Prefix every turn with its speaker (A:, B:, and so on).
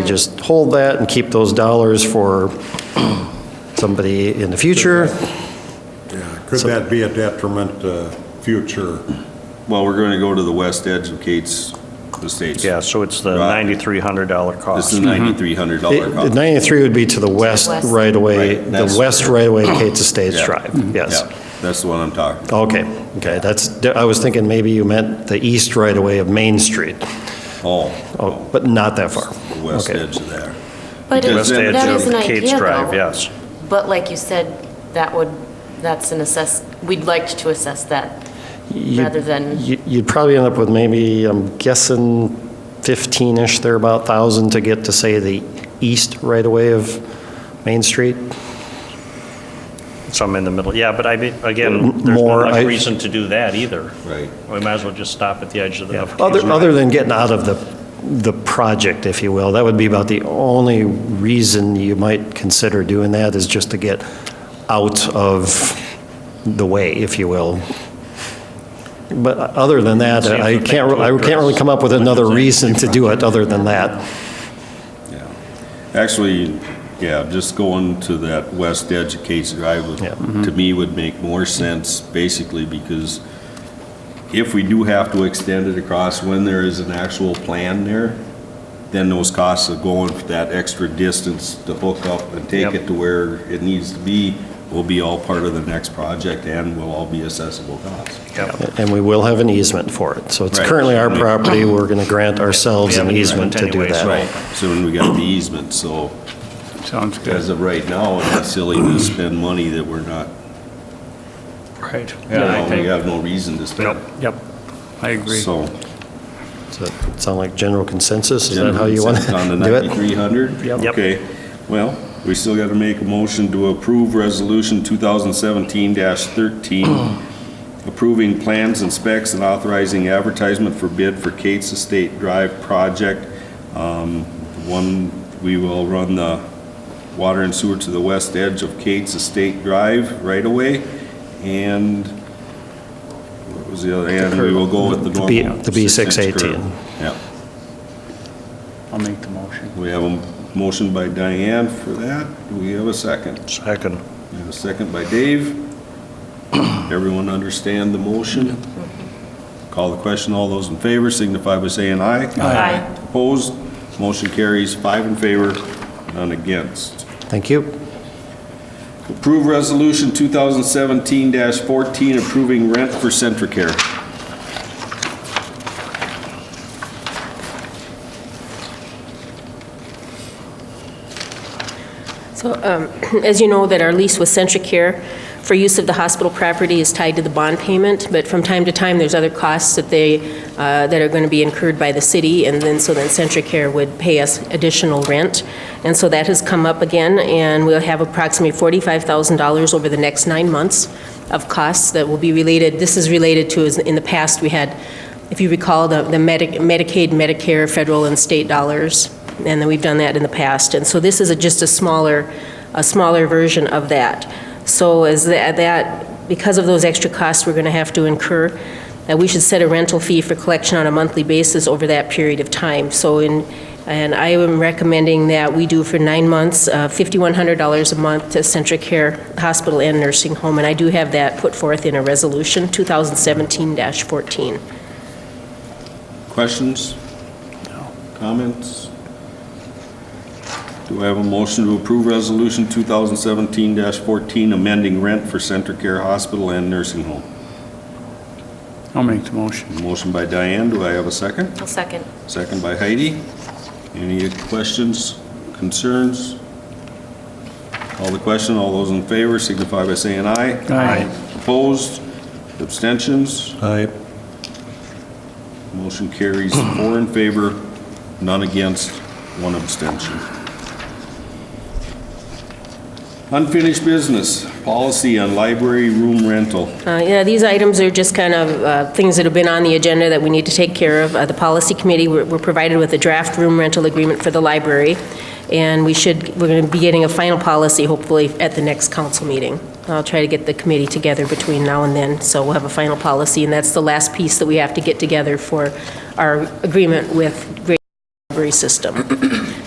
A: just hold that and keep those dollars for somebody in the future.
B: Yeah, could that be a detriment to future?
C: Well, we're going to go to the west edge of Kate's Estates.
D: Yeah, so it's the
C: Right.
D: $9,300
C: This
D: cost.
C: is $9,300
A: It-
C: cost.
A: 93 would be to the west
E: west.
A: right away,
C: Right,
A: the
C: that's-
A: west right away Kate's Estates
C: Yeah. Mm-hmm.
A: Drive, yes.
C: Yeah, That's the one I'm talking about.
A: Okay, okay, that's, I was thinking maybe you meant the east right away of Main Street,
C: Oh,
A: Oh, but not that far.
C: the west
A: Okay.
C: edge of there.
E: But it-
C: Because
D: West
C: then-
D: edge
E: that is an
D: of Kate's
E: idea,
D: Drive,
E: though.
D: yes.
E: But like you said, that would, that's an assess, we'd like to assess that
A: You-
E: rather than,
A: you- You'd probably end up with maybe, I'm guessing 15-ish, there about 1,000 to get to, say, the east right away of Main Street.
D: Some in the middle, yeah, but I mean, again, there's
A: More, I-
D: no much reason to do that either.
C: Right.
D: We might as well just stop at the edge of the. of Kate's
A: Other,
D: Drive.
A: other than getting out of the, the project, if you will, that would be about the only reason you might consider doing that is just to get out of the way, if you will. But other than that,
D: Seems
A: I
D: the thing
A: can't,
D: to
A: re- I can't really
D: address.
A: come up with another
D: Within the
A: reason to do it other than that.
C: Yeah. Actually, yeah, just going to that west edge of Case Drive, would-
A: Yeah.
C: to me, would make more sense, basically, because if we do have to extend it across when there is an actual plan there, then those costs of going for that extra distance to hook up and take
D: Yep.
C: it to where it needs to be will be all part of the next project and will all be accessible costs.
D: Yep.
A: And we will have an easement for it. So it's
C: Right.
A: currently our property, we're going to grant ourselves
D: We have
A: an
D: an
A: easement to
D: easement
A: do
D: anyway,
A: that.
D: so-
C: Right. So when we got the easement, so
F: Sounds
C: as
F: good.
C: of right now, it's silly to spend money that we're not
F: Right.
C: You
F: Yeah, I
C: know, we
F: think,
C: have no reason to
F: yep,
C: spend.
F: yep, I agree.
C: So.
A: Does that sound like general consensus? Is that how you want to
C: On the
A: do it?
C: 9,300?
A: Yep.
D: Yep.
C: Okay, well, we still got to make a motion to approve Resolution 2017-13, approving plans and specs and authorizing advertisement for bid for Kate's Estate Drive project. Um, One, we will run the water and sewer to the west edge of Kate's Estate Drive right away, and, what was the other, and we will go with the
A: The B-
C: normal.
A: the B
C: six-inch curve.
A: 618.
C: Yep.
F: I'll make the motion.
C: We have a motion by Diane for that. Do we have a second?
D: Second.
C: We have a second by Dave. Everyone understand the motion? Call the question. All those in favor signify by saying aye.
E: Aye.
C: Opposed? Motion carries five in favor, none against.
A: Thank you.
C: Approve Resolution 2017-14 approving rent for Centricare.
G: So, um, as you know, that our lease with Centricare for use of the hospital property is tied to the bond payment, but from time to time, there's other costs that they, uh, that are going to be incurred by the city, and then, so then Centricare would pay us additional rent. And so that has come up again, and we'll have approximately $45,000 over the next nine months of costs that will be related, this is related to, is in the past, we had, if you recall, the the Medi- Medicaid, Medicare, federal and state dollars and then we've done that in the past. And so this is a- just a smaller, a smaller version of that. So as tha- that, because of those extra costs we're going to have to incur, that we should set a rental fee for collection on a monthly basis over that period of time. So in, and I am recommending that we do for nine months, uh, $5,100 a month to Centric Care Hospital and Nursing Home. And I do have that put forth in a resolution, 2017-14.
C: Questions? Comments? Do I have a motion to approve Resolution 2017-14, amending rent for Centricare Hospital and Nursing Home?
F: I'll make the motion.
C: Motion by Diane, do I have a second?
E: I'll second.
C: Second by Heidi. Any questions, concerns? All the question, all those in favor signify by saying aye.
F: Aye.
C: Opposed? Abstentions? Aye. Motion carries four in favor, none against, one abstention. Unfinished business, policy on library room rental.
G: Uh, Yeah, these items are just kind of uh, things that have been on the agenda that we need to take care of. Uh, The policy committee, we're we're provided with a draft room rental agreement for the library, and we should, we're going to be getting a final policy hopefully at the next council meeting. I'll try to get the committee together between now and then, so we'll have a final policy, and that's the last piece that we have to get together for our agreement with Great Library System.